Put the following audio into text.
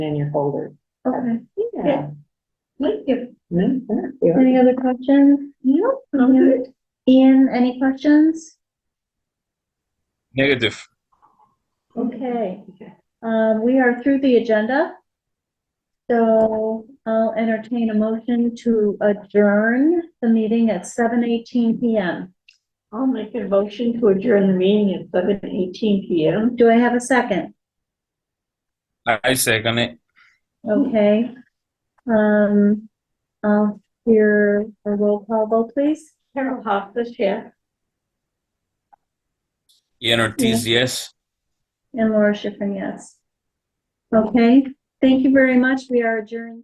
in your folder. Okay, Yeah. thank you. Mm, there you are. Any other questions? No, I'm good. Ian, any questions? Negative. Okay, Okay. um, we are through the agenda. So I'll entertain a motion to adjourn the meeting at seven eighteen PM. I'll make a motion to adjourn the meeting at seven eighteen P M. Do I have a second? I I second it. Okay. Um, I'll hear a roll call vote, please. Carol Hoffs, yeah. Ian Ortiz, yes. And Laura Schifrin, yes. Okay, thank you very much. We are adjourned.